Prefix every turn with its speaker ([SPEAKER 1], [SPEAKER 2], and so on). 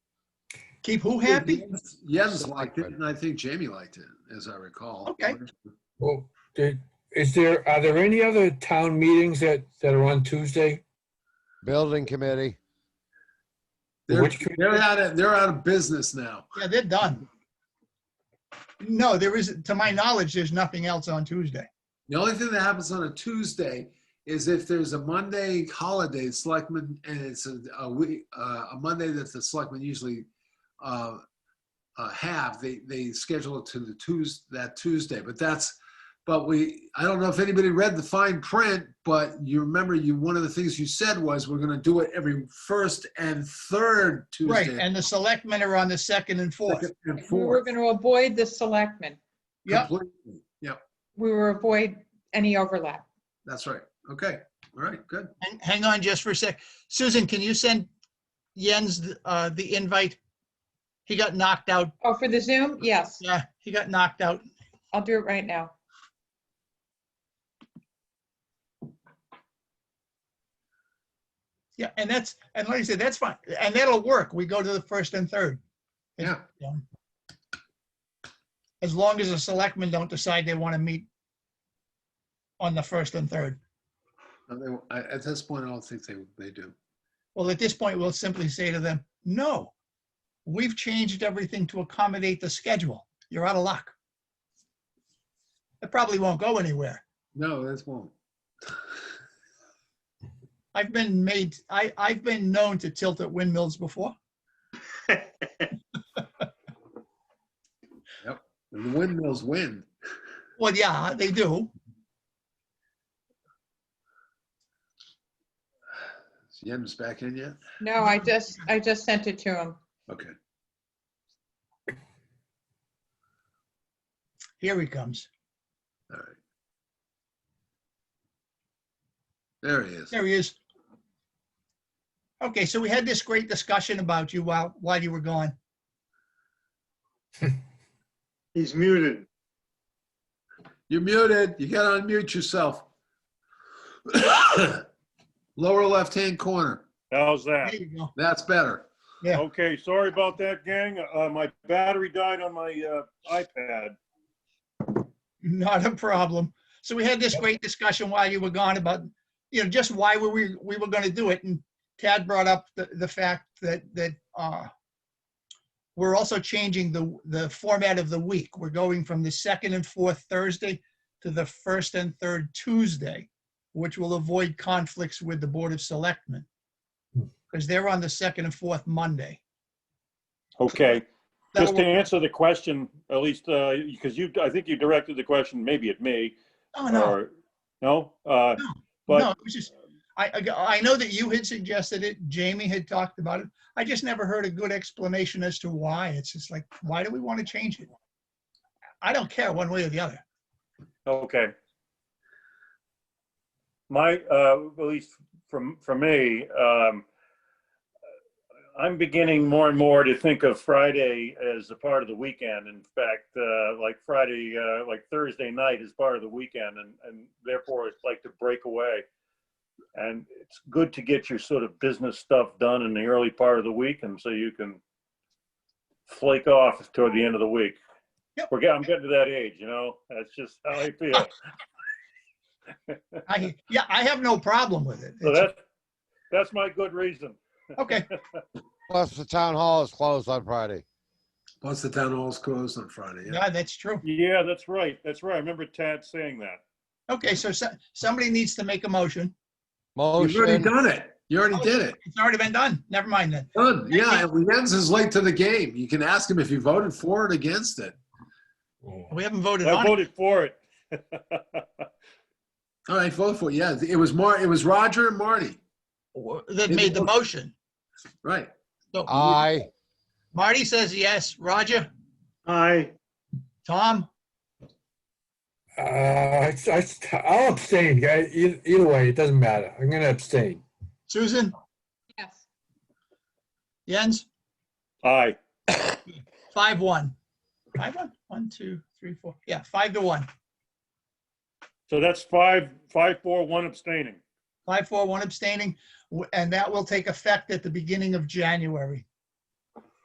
[SPEAKER 1] Keep who happy?
[SPEAKER 2] Jens- Jens liked it, and I think Jamie liked it, as I recall.
[SPEAKER 1] Okay.
[SPEAKER 3] Well, did, is there, are there any other town meetings that, that are on Tuesday?
[SPEAKER 4] Building committee.
[SPEAKER 2] They're,
[SPEAKER 3] Which committee?
[SPEAKER 2] they're out of, they're out of business now.
[SPEAKER 1] Yeah, they're done. No, there isn't, to my knowledge, there's nothing else on Tuesday.
[SPEAKER 2] The only thing that happens on a Tuesday is if there's a Monday holiday, selectmen, and it's a, a week, uh, a Monday that the selectmen usually uh, uh, have, they, they schedule it to the Tues, that Tuesday, but that's, but we, I don't know if anybody read the fine print, but you remember you, one of the things you said was, we're gonna do it every first and third
[SPEAKER 1] Right,
[SPEAKER 2] Tuesday.
[SPEAKER 1] and the selectmen are on the second and fourth.
[SPEAKER 2] second And
[SPEAKER 5] We were
[SPEAKER 2] fourth.
[SPEAKER 5] going to avoid the selectmen.
[SPEAKER 1] Yep,
[SPEAKER 2] completely. Yep,
[SPEAKER 5] We were avoid any overlap.
[SPEAKER 2] that's right. Okay, all right, good.
[SPEAKER 1] hang- hang on just for a sec. Susan, can you send Jens uh, the invite? He got knocked out.
[SPEAKER 5] Oh, for the Zoom? Yes,
[SPEAKER 1] Yeah, he got knocked out.
[SPEAKER 5] I'll do it right now.
[SPEAKER 1] Yeah, and that's, and like I said, that's fine. And that'll work. We go to the first and third.
[SPEAKER 2] Yeah,
[SPEAKER 1] as long as the selectmen don't decide they want to meet on the first and third.
[SPEAKER 2] No, they- I- at this point, I don't think they, they do.
[SPEAKER 1] Well, at this point, we'll simply say to them, no, we've changed everything to accommodate the schedule. You're out of luck. It probably won't go anywhere.
[SPEAKER 2] No, this won't.
[SPEAKER 1] I've been made, I, I've been known to tilt at windmills before.
[SPEAKER 2] And the windmills win.
[SPEAKER 1] Well, yeah, they do.
[SPEAKER 2] Is Jim's back in yet?
[SPEAKER 5] No, I just, I just sent it to him.
[SPEAKER 2] Okay.
[SPEAKER 1] Here he comes.
[SPEAKER 2] All right. There he is.
[SPEAKER 1] There he is. Okay, so we had this great discussion about you while, while you were gone.
[SPEAKER 6] He's muted.
[SPEAKER 2] You're muted. You gotta unmute yourself. Lower left-hand corner.
[SPEAKER 6] How's
[SPEAKER 1] There
[SPEAKER 6] that?
[SPEAKER 1] you go.
[SPEAKER 2] That's better.
[SPEAKER 1] Yeah.
[SPEAKER 6] Okay, sorry about that, gang. Uh, my battery died on my, uh, iPad.
[SPEAKER 1] Not a problem. So we had this great discussion while you were gone about, you know, just why were we, we were gonna do it, and Tad brought up the, the fact that, that, uh, we're also changing the, the format of the week. We're going from the second and fourth Thursday to the first and third Tuesday, which will avoid conflicts with the Board of Selectmen. Because they're on the second and fourth Monday.
[SPEAKER 6] Okay,
[SPEAKER 1] That'll
[SPEAKER 6] just to
[SPEAKER 1] work-
[SPEAKER 6] answer the question, at least, uh, because you, I think you directed the question maybe at me.
[SPEAKER 1] Oh, no,
[SPEAKER 6] or- No, uh,
[SPEAKER 1] no,
[SPEAKER 6] but,
[SPEAKER 1] it was just, I, I, I know that you had suggested it, Jamie had talked about it. I just never heard a good explanation as to why. It's just like, why do we want to change it? I don't care one way or the other.
[SPEAKER 6] okay. My, uh, at least from, for me, um, I'm beginning more and more to think of Friday as a part of the weekend. In fact, uh, like Friday, uh, like Thursday night is part of the weekend and, and therefore it's like to break away. And it's good to get your sort of business stuff done in the early part of the week and so you can flake off toward the end of the week.
[SPEAKER 1] Yep.
[SPEAKER 6] We're getting, I'm getting to that age, you know, that's just how I feel.
[SPEAKER 1] I, yeah, I have no problem with it.
[SPEAKER 6] So that's, that's my good reason.
[SPEAKER 1] Okay,
[SPEAKER 4] Plus, the town hall is closed on Friday.
[SPEAKER 2] Plus the town hall's closed on Friday. yeah.
[SPEAKER 1] yeah, that's true.
[SPEAKER 6] Yeah, that's right. That's right. I remember Tad saying that.
[SPEAKER 1] Okay, so so- somebody needs to make a motion.
[SPEAKER 2] You've already
[SPEAKER 4] Motion.
[SPEAKER 2] done it. You already did it.
[SPEAKER 1] It's already been done. Never mind then.
[SPEAKER 2] Done. Yeah, and Jens is late to the game. You can ask him if you voted for it, against it.
[SPEAKER 1] We haven't voted
[SPEAKER 6] I
[SPEAKER 1] on it.
[SPEAKER 6] voted for it.
[SPEAKER 2] All right, vote for it. Yeah, it was Mar, it was Roger and Marty.
[SPEAKER 1] That made the motion.
[SPEAKER 2] Right.
[SPEAKER 1] So
[SPEAKER 4] Aye.
[SPEAKER 1] Marty says yes. Roger,
[SPEAKER 6] Aye.
[SPEAKER 1] Tom,
[SPEAKER 3] Uh, I, I- I'll abstain, guy, either, either way, it doesn't matter, I'm gonna abstain.
[SPEAKER 1] Susan,
[SPEAKER 5] Yes.
[SPEAKER 1] Jens?
[SPEAKER 6] Aye.
[SPEAKER 1] Five, one. Five, one? One, two, three, four. Yeah, five to one.
[SPEAKER 6] So that's five, five, four, one abstaining.
[SPEAKER 1] Five, four, one abstaining, w- and that will take effect at the beginning of January.